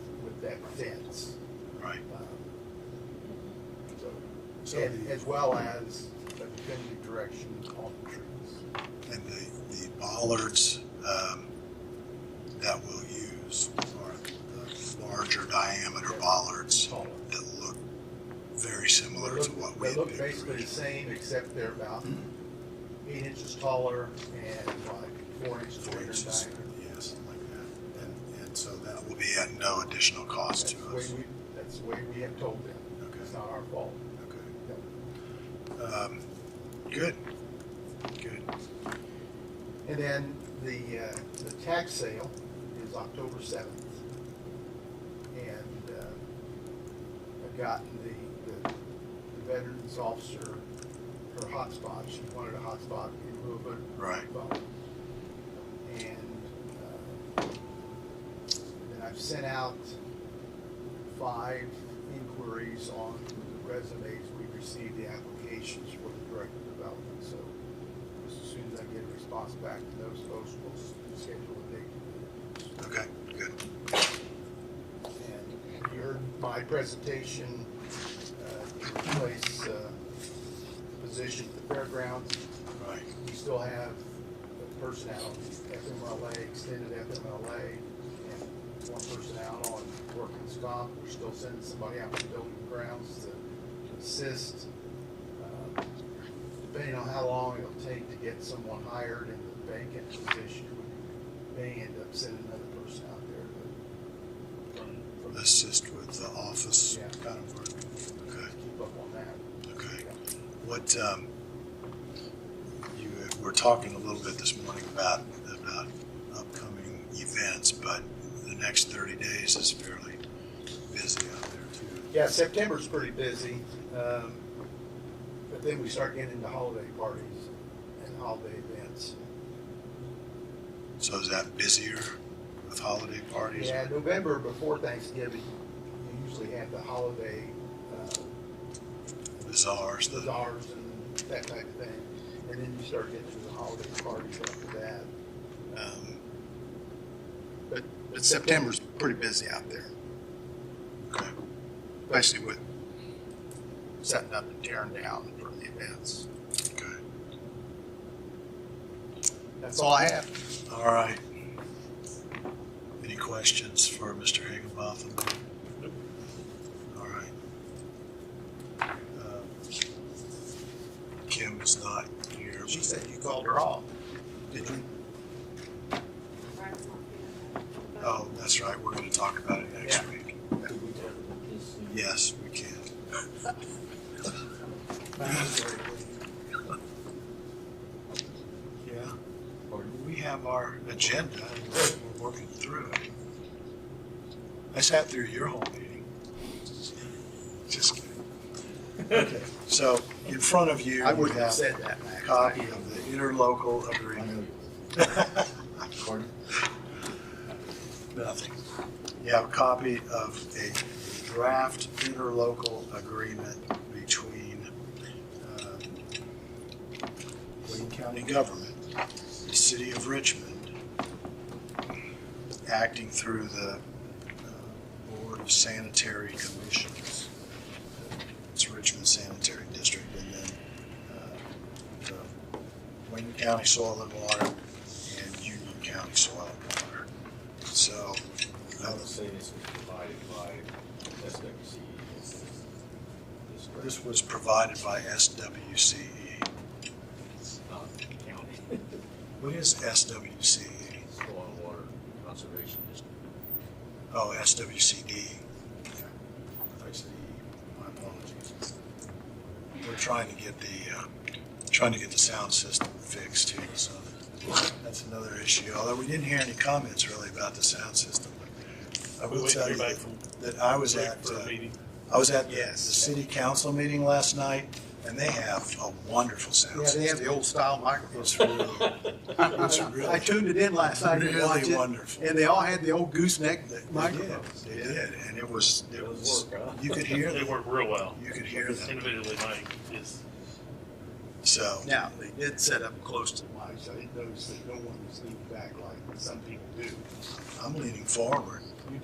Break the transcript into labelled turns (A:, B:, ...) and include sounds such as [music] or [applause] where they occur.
A: facility.
B: Um, and- as well as a definitive direction on the trees.
A: And the, the bollards um, that we'll use are the larger diameter bollards
B: Taller.
A: that look very
B: They
A: similar to what
B: look,
A: we
B: they
A: had
B: look
A: picked
B: basically the
A: originally.
B: same, except they're about eight inches taller and like four inches
A: Hmm. Four
B: greater in
A: inches,
B: diameter.
A: yeah, something like that. And, and so that will be at no additional cost
B: That's
A: to
B: the way
A: us.
B: we, that's the way we have told them.
A: Okay.
B: It's not our fault.
A: Okay. Um, Good, good.
B: And then the, uh, the tax sale is October seventh. And, uh, I've gotten the, the the veterans officer, her hotspot, she wanted a hotspot in lieu of a
A: Right.
B: phone. And, uh, then I've sent out five inquiries on the resumes we received, the applications for the director of development, so as soon as I get a response back to those folks, we'll s- schedule a date.
A: Okay, good.
B: And you heard my presentation, uh, to replace, uh, position at the fairgrounds.
A: Right,
B: We still have a person out on FMLA, extended FMLA, and one person out on workman's comp. We're still sending somebody out to building grounds to assist. Um, Depending on how long it'll take to get someone hired in the vacant position, we may end up sending another person out there to. from- from-
A: assist with the office
B: Yeah.
A: kind of work. Okay.
B: Keep up on that.
A: Okay, what, um, you were talking a little bit this morning about, about upcoming events, but the next thirty days is fairly busy out there too.
B: Yeah, September's pretty busy, um, but then we start getting into holiday parties and holiday events.
A: So is that busier with holiday parties?
B: Yeah, November before Thanksgiving, you usually have the holiday, uh,
A: Bazaars, the,
B: bazaars and that type of thing. And then you start getting to the holiday parties after that.
A: um,
B: But, but September's pretty busy out there,
A: okay,
B: especially with setting up and tearing down for the events.
A: okay.
B: That's all I have.
A: All right. Any questions for Mr. Higginbotham? All right. Um, Kim is not here.
B: She said you called her off.
A: Did you? Oh, that's right, we're gonna talk about it next
B: Yeah.
A: week.
C: This, uh,
A: Yes, we can. Yeah. We have our agenda, and we're working through it. I sat through your whole meeting. Just kidding. Okay, so in front of you,
B: I
A: you
B: wouldn't have
A: have
B: said that.
A: a
B: Max.
A: copy of the interlocal
B: [laughs]
A: agreement.
C: Pardon?
A: Nothing. You have a copy of a draft interlocal agreement between um, Wayne County Government, the City of Richmond, acting through the uh, Board of Sanitary Commissions. It's Richmond Sanitary District, and then uh, the Wayne County Soil and Water and Union County Soil and Water. So,
C: I would say this was provided by SWC. This is- this is
A: This was provided by SWCE.
C: not the county,
A: What is SWCE?
C: soil and water conservation district.
A: Oh, SWCD. I thought you said E. My
C: [laughs]
A: apologies. We're trying to get the, uh, trying to get the sound system fixed too, so that's another issue. Although we didn't hear any comments really about the sound system. I
D: We
A: will
D: wait
A: tell
D: to
A: you
D: hear back
A: that
D: from
A: that I was
D: Rick
A: at,
D: for a
A: uh,
D: meeting.
A: I was at the the
B: Yes.
A: city council meeting last night, and they have a wonderful sound
B: Yeah,
A: system.
B: they have the old style microphones.
A: It's really, it's really.
B: I tuned it in last night to
A: Really
B: watch it,
A: wonderful.
B: and they all had the old gooseneck
A: They- they
B: microphones.
A: did, They did, and it was, it
C: It was
A: was,
C: work, huh?
A: you could hear
D: They
A: them,
D: work real well.
A: you could hear them,
D: Individually, mine is
A: so.
B: Now, they did set up close to the mic, so I didn't notice that no one was leaning back like some people do.
A: I'm leaning forward.